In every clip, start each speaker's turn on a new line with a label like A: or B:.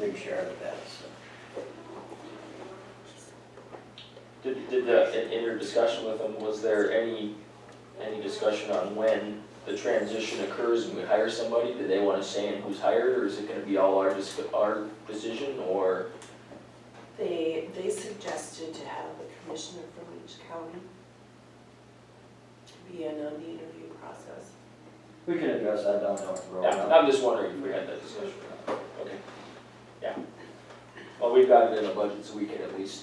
A: new share of that, so.
B: Did, did the, in, in your discussion with them, was there any, any discussion on when the transition occurs and we hire somebody? Do they wanna say in who's hired, or is it gonna be all our, dis- our decision, or?
C: They, they suggested to have a commissioner from each county be in on the interview process.
A: We can address that down the road.
B: Yeah, I'm just wondering if we had that discussion or not, okay, yeah. Well, we've got it in the budget, so we can at least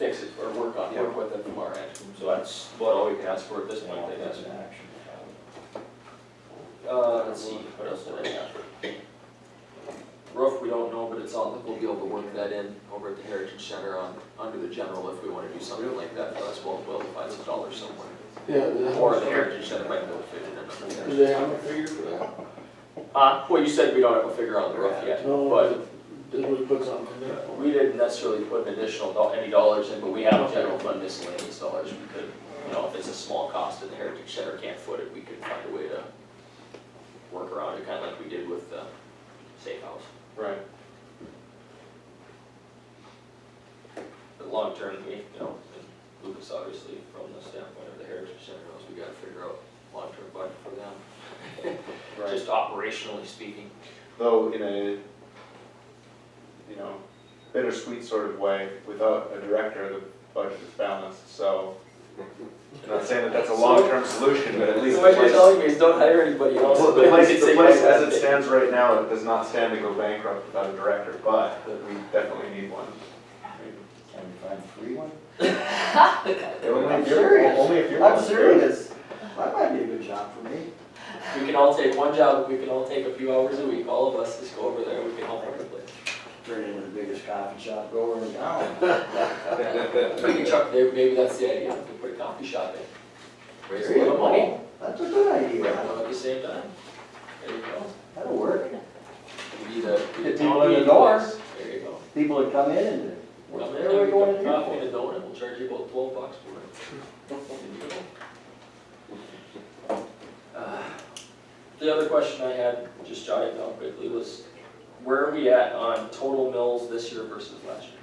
B: fix it, or work on, work with it from our end, so that's what all we can ask for at this point, I guess.
A: That's an action.
B: Uh, let's see, what else did I have? Roof, we don't know, but it's on, we'll be able to work that in over at the Heritage Center on, under the general if we wanna do something like that, but that's well, we'll find some dollars somewhere.
D: Yeah, the
B: Or
D: horse.
B: the Heritage Center might be able to fit it in.
D: Do they have a figure for that?
B: Uh, well, you said we don't have a figure on the roof yet, but
D: No, did we put something in there?
B: we didn't necessarily put an additional, do- any dollars in, but we have general fund miscellaneous dollars, we could, you know, if it's a small cost and the Heritage Center can't foot it, we could find a way to work around it, kinda like we did with the safe house.
E: Right.
B: But long term, we, you know, and Lucas obviously from the standpoint of the Heritage Center, knows we gotta figure out long-term budget for them,
E: Right,
B: just operationally speaking.
E: though in a, you know, bittersweet sort of way, without a director, the budget is balanced, so. I'm not saying that that's a long-term solution, but at least the place, the
B: me is don't hire anybody
E: place, the place as it stands right now, it does not stand to go bankrupt without a director, but we definitely need one. I mean,
A: Can we find a free one?
E: Only
A: I'm
E: if you're,
A: serious.
E: only if you're.
A: I'm serious. That might be a good job for me.
B: We can all take one job, we can all take a few hours a week, all of us just go over there, we can all work the place.
A: Turn into the biggest coffee shop grower in town.
B: Maybe Chuck, maybe maybe that's the idea, we can put a coffee shop in. Raise a little money,
A: That's a good
B: you
A: idea.
B: know, at the same time. There you go.
A: That'll work.
B: Be the, be the
A: People
B: donut
A: in the
B: of
A: door.
B: place. There you go.
A: People would come in and,
B: Come in,
A: where are we
B: have
A: going to
B: a
A: do
B: coffee and
A: it?
B: a donut, we'll charge you about twelve bucks for it. There you go. Uh, The other question I had, just jotted down quickly, was where are we at on total mills this year versus last year?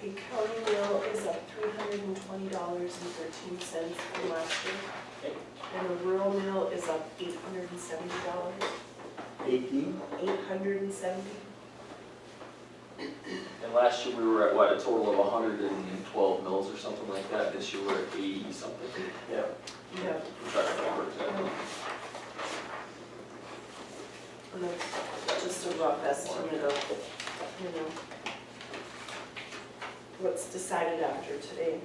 C: The county meal is up three hundred and twenty dollars and thirteen cents from last year.
B: Okay.
C: And the rural meal is up eight hundred and seventy dollars,
A: Eighteen?
C: eight hundred and seventy.
B: And last year we were at what, a total of hundred and twelve mills or something like that, this year we're at eighty something.
A: Yeah.
C: Yeah,
B: I'm trying to remember exactly.
C: and that's just a rough estimate of, you know, what's decided after today.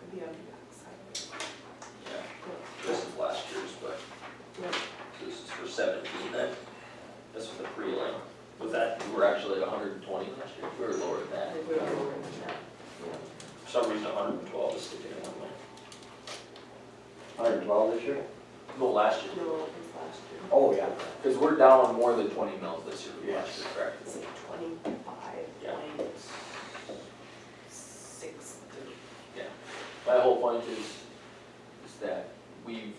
C: Could be on the backside.
B: Yeah, this is last year's, but,
C: Yeah.
B: so this is for seventeen then, this was the prelim. Was that, we were actually at hundred and twenty last year, we were lower than that.
C: Like, we don't know where it's at.
B: For some reason, hundred and twelve is sticking in my mind.
A: Hundred and twelve this year?
B: No, last year,
C: No, it was last year.
A: Oh, yeah.
B: because we're down more than twenty mills this year, from last year, correct?
C: It's like twenty-five point six three.
B: My whole point is, is that we've,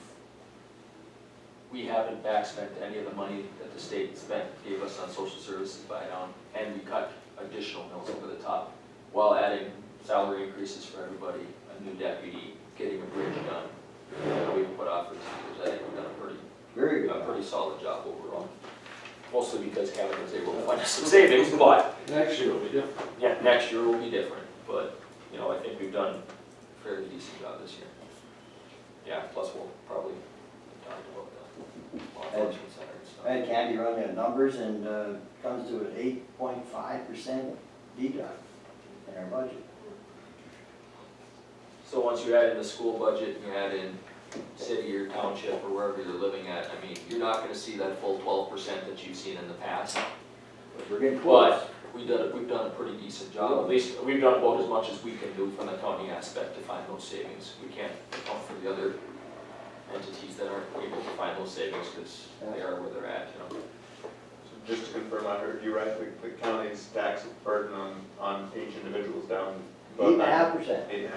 B: we haven't backspent any of the money that the state spent, gave us on social services by now, and we cut additional mills over the top, while adding salary increases for everybody, a new deputy, getting a bridge done, that we've put off for two years, I think we've done a pretty
A: Very good.
B: a pretty solid job overall. Mostly because Kevin was able to find us some savings, but,
D: Next year will be different.
B: yeah, next year will be different, but, you know, I think we've done a fairly decent job this year. Yeah, plus we'll probably talk about the law enforcement
A: I
B: center and
A: had Candy run the numbers and uh, comes to an eight point five percent deduct in our budget.
B: stuff. So once you add in the school budget, and you add in city or township or wherever you're living at, I mean, you're not gonna see that full twelve percent that you've seen in the past.
A: But We're getting close.
B: But we did, we've done a pretty decent job, at least, we've done about as much as we can do from the county aspect to find those savings. We can't account for the other entities that aren't able to find those savings, because they are where they're at, you know.
E: So Just to confirm, I heard you right, the the county's tax burden on, on each individual is down.
A: Eight and a half percent.
E: Eight and a half